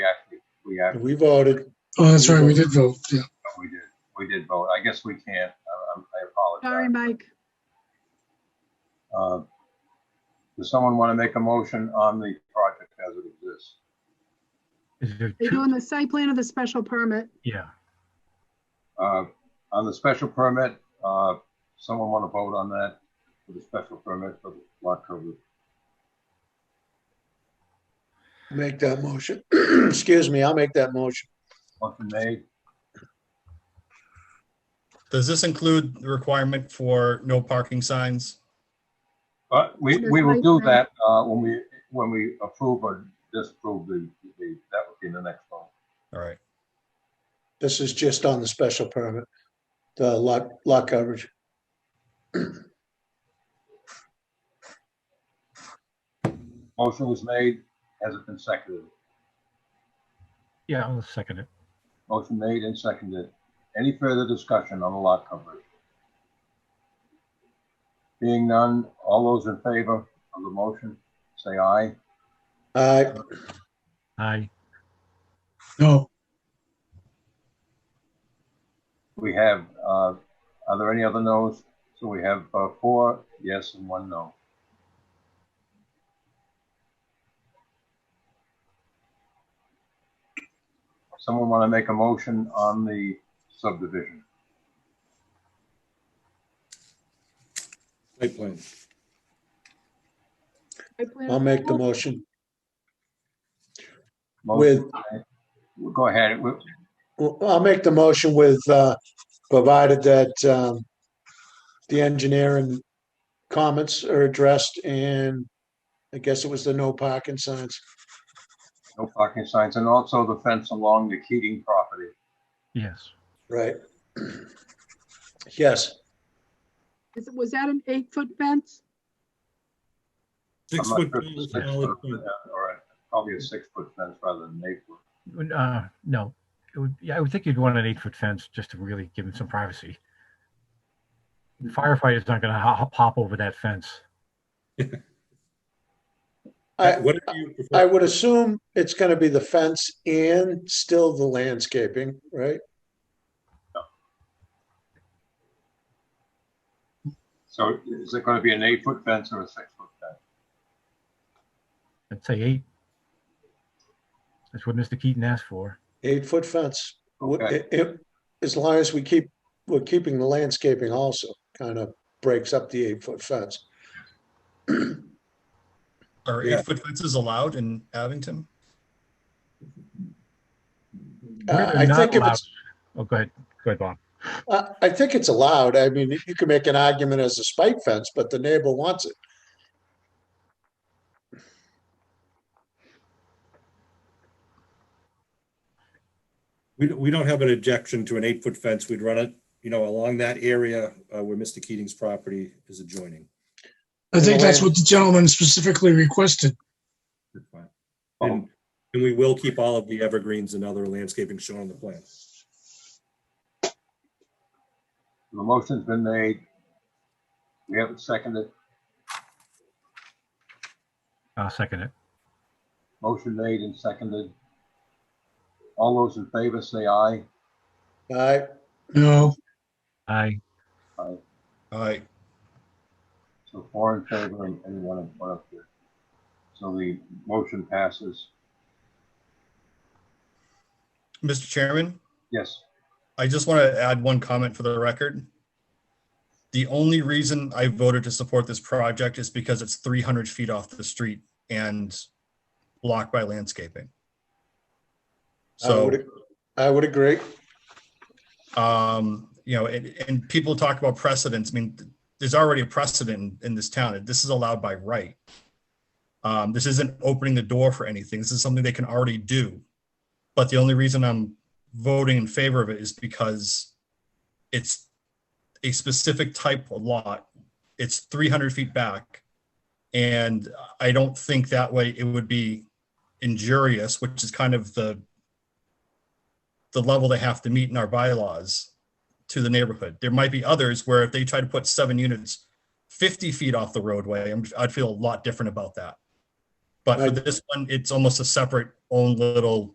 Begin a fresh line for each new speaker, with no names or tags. yeah,
We voted.
Oh, that's right, we did vote, yeah.
we did, we did vote. I guess we can't, I- I'm- I
Sorry,
apologize.
Mike.
Uh, Does someone want to make a motion on the project as it exists?
Is it
They're
two?
doing the site plan of the special permit.
Yeah,
Uh, On the special permit, uh, someone want to vote on that for the special permit for the lot coverage?
Make that motion. Excuse me, I'll make that motion.
Motion made,
Does this include the requirement for no parking signs?
but we, we will do that uh, when we, when we approve or disapprove the, the- that would be the next one.
All right,
This is just on the special permit, the lot, lot coverage.
Motion was made, has it been seconded?
yeah, I'll second it.
Motion made and seconded. Any further discussion on the lot coverage? Being none, all those in favor of the motion, say aye.
Aye,
Aye,
No,
We have, uh, are there any other no's? So we have uh, four yes and one no. Someone want to make a motion on the subdivision?
Site plan.
Site plan-
I'll make the motion.
Motion- Go ahead. We-
Well, I'll make the motion with, uh, provided that, um, the engineering comments are addressed and I guess it was the no parking signs.
No parking signs, and also the fence along the Keating property.
yes.
Right. Yes,
Is- Was that an eight-foot fence?
I'm
Six
not
foot.
sure if it's
fence,
six
solid
foot,
fence.
uh, Or a- probably a six-foot fence rather than an eight-foot.
Uh, no, it would, yeah, I would think you'd want an eight-foot fence just to really give him some privacy. Firefighter's not gonna hop, hop over that fence.
I,
Whatever you prefer.
I would assume it's gonna be the fence and still the landscaping, right?
So is it going to be an eight-foot fence or a six-foot fence?
I'd say eight. That's what Mr. Keaton asked for.
Eight-foot fence. Would-
Okay.
i- i- As long as we keep, we're keeping the landscaping also, kind of breaks up the eight-foot fence.
are
Yeah.
eight-foot fences allowed in Abington?
Where
Uh,
they're
I
not
think if
allowed-
it's,
Oh, go ahead, go ahead, Bob.
I, I think it's allowed. I mean, you can make an argument as a spike fence, but the neighbor wants it.
We, don't- we don't have an objection to an eight-foot fence. We'd run it, you know, along that area uh, where Mr. Keating's property is adjoining.
I think that's what the gentleman specifically requested.
That's fine.
Oh,
And, and we will keep all of the evergreens and other landscaping shown on the plan.
The motion's been made. We have it seconded.
I'll second it.
Motion made and seconded. All those in favor say aye.
I,
No,
Aye,
All right,
So four in favor and and one one up there. So the motion passes.
Mr. Chairman,
Yes,
I just want to add one comment for the record. The only reason I voted to support this project is because it's three hundred feet off the street and blocked by landscaping.
I
So.
Uh, would, I would agree.
um, you know, and, and people talk about precedents. I mean, th- there's already a precedent in, in this town. This is allowed by right. Um, this isn't opening the door for anything. This is something they can already do. But the only reason I'm voting in favor of it is because it's a specific type of lot. It's 300 feet back. And I don't think that way it would be injurious, which is kind of the the level they have to meet in our bylaws to the neighborhood. There might be others where if they try to put seven units fifty feet off the roadway, I'm- I'd feel a lot different about that. But for
Right.
this one, it's almost a separate own little